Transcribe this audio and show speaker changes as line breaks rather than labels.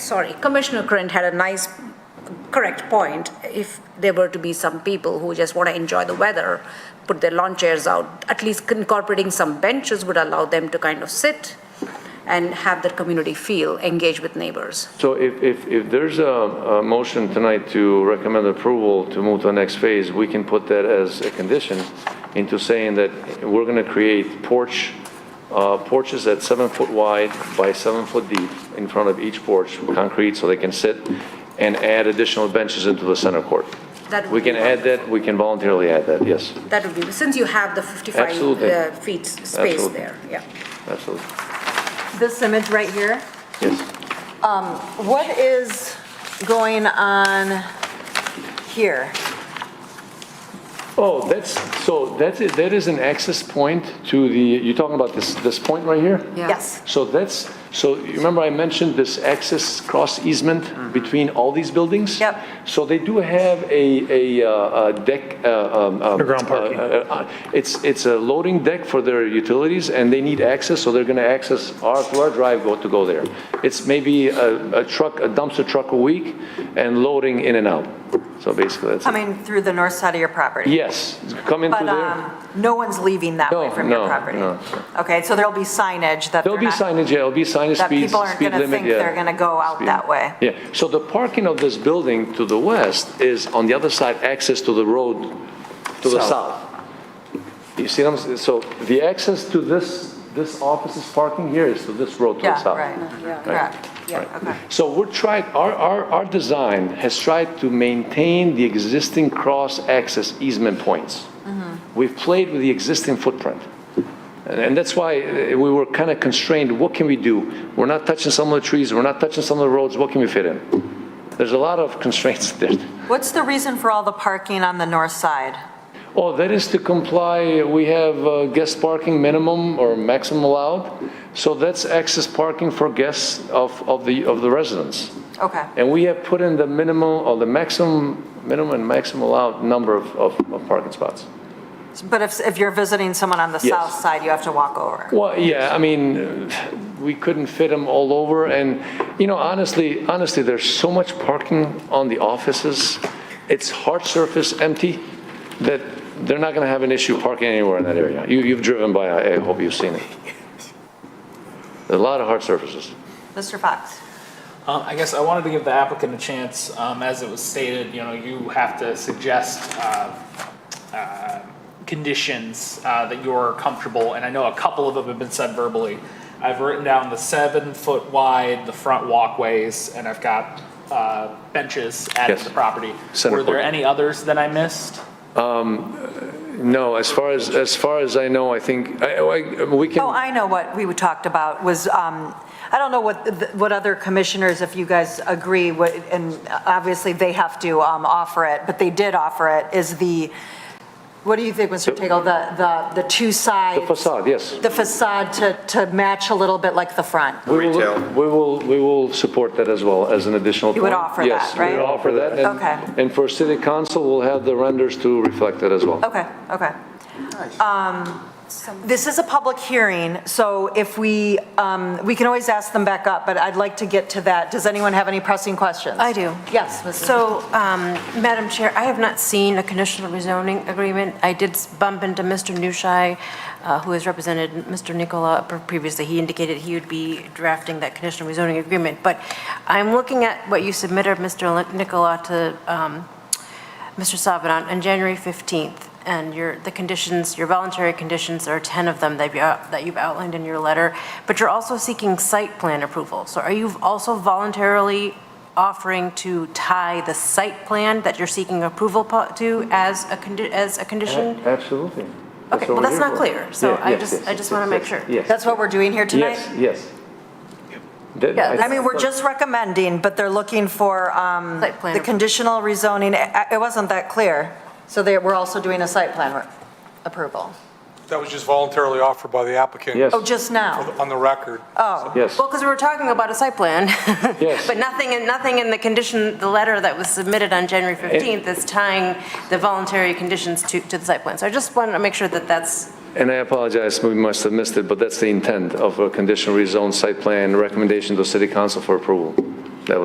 sorry, Commissioner Krantz had a nice, correct point. If there were to be some people who just want to enjoy the weather, put their lawn chairs out, at least incorporating some benches would allow them to kind of sit and have that community feel, engage with neighbors.
So if, if, if there's a, a motion tonight to recommend approval to move to the next phase, we can put that as a condition into saying that we're gonna create porch, uh, porches that's seven foot wide by seven foot deep in front of each porch, concrete, so they can sit, and add additional benches into the center court.
That would
We can
be
add that, we can voluntarily add that, yes,
That would be, since you have the 55
Absolutely.
uh, feet s- space
Absolutely.
there, yeah.
absolutely,
This image right here,
yes.
what is going on here?
Oh, that's, so that's, it- that is an access point to the, you're talking about this, this point right here?
Yeah.
Yes.
So that's, so you remember I mentioned this access cross easement between all these buildings?
Mm-hmm. Yep.
So they do have a, a, uh, a deck, uh, um, um.
Underground parking.
uh, uh, uh, It's, it's a loading deck for their utilities and they need access, so they're gonna access our, to our drive go to go there. It's maybe a, a truck, a dumpster truck a week and loading in and out. So basically that's, it.
Coming through the north side of your property?
yes, come in through
But
there.
um, no one's leaving that way
No,
from your
no,
property?
no.
Okay, so there'll be signage that they're
There'll be
not-
signage, yeah, there'll be signage,
that
speed, speed limit, yeah.
people aren't gonna think they're gonna go out
Speed.
that way.
Yeah, so the parking of this building to the west is on the other side, access to the road to the south. You see what I'm, s- so the access to this, this office's parking here is to this road to the
Yeah,
south.
right, correct.
Right.
Okay.
So we're trying, our, our, our design has tried to maintain the existing cross-access easement points. We've played with the existing footprint. And and that's why uh, we were kind of constrained, what can we do? We're not touching some of the trees, we're not touching some of the roads, what can we fit in? There's a lot of constraints there.
What's the reason for all the parking on the north side?
Oh, that is to comply, we have uh, guest parking minimum or maximum allowed. So that's access parking for guests of, of the, of the residents.
Okay,
And we have put in the minimum, or the maximum, minimum and maximum allowed number of, of, of parking spots.
but if, if you're visiting someone on the
Yes.
south side, you have to walk over?
Well, yeah, I mean, uh, we couldn't fit them all over, and, you know, honestly, honestly, there's so much parking on the offices, it's hard surface, empty, that they're not gonna have an issue parking anywhere in that area. You, you've driven by, I I hope you've seen it. There's a lot of hard surfaces.
Mr. Fox?
Um, I guess I wanted to give the applicant a chance, um, as it was stated, you know, you have to suggest, uh, uh, conditions, uh, that you're comfortable, and I know a couple of them have been said verbally. I've written down the seven foot wide, the front walkways, and I've got, uh, benches added
Yes.
to the property.
Center
Were there
court.
any others that I missed?
No, as far as, as far as I know, I think, I, I, we can.
Oh, I know what we talked about was, um, I don't know what, the- what other commissioners, if you guys agree, what- and obviously they have to um, offer it, but they did offer it, is the, what do you think, Mr. Tagle, the, the, the two sides?
The facade, yes.
The facade to, to match a little bit like the front.
We will-
Retail.
We will, we will support that as well as an additional.
You would
point.
offer that,
Yes,
right?
we will offer that. and-
Okay.
And for city council, we'll have the renders to reflect that as well.
Okay, okay. Um, This is a public hearing, so if we, um, we can always ask them back up, but I'd like to get to that. Does anyone have any pressing questions?
I do.
Yes, Mrs.
So, um, Madam Chair, I have not seen a conditional rezoning agreement. I did bump into Mr. Nushai, uh, who has represented Mr. Nicola previously. He indicated he would be drafting that conditional rezoning agreement. But I'm looking at what you submitted, Mr. Nicola, to um, Mr. Sabadon, on January 15th, and your, the conditions, your voluntary conditions, there are 10 of them that you, uh, that you've outlined in your letter, but you're also seeking site plan approval. So are you also voluntarily offering to tie the site plan that you're seeking approval po- to as a, condi- as a condition?
Absolutely.
Okay, well,
what we're
that's
here
not
for.
clear, so
Yeah,
I
yes,
just-
yes,
I just
yes,
wanna make
yes,
sure.
Yes.
That's what we're doing here tonight?
Yes, yes. That-
Yeah,
I-
I mean, we're just recommending, but they're looking for um,
Site plan.
the conditional rezoning. I- It wasn't that clear. So they, we're also doing a site plan re- approval.
That was just voluntarily offered by the applicant.
Yes,
Oh, just now?
On the record.
Oh,
yes.
Well, because we were talking about a site plan.
Yes.
But nothing, in nothing in the condition, the letter that was submitted on January 15th is tying the voluntary conditions to, to the site plan. So I just wanted to make sure that that's
And I apologize, we must have missed it, but that's the intent of a conditional rezone site plan recommendation to city council for approval.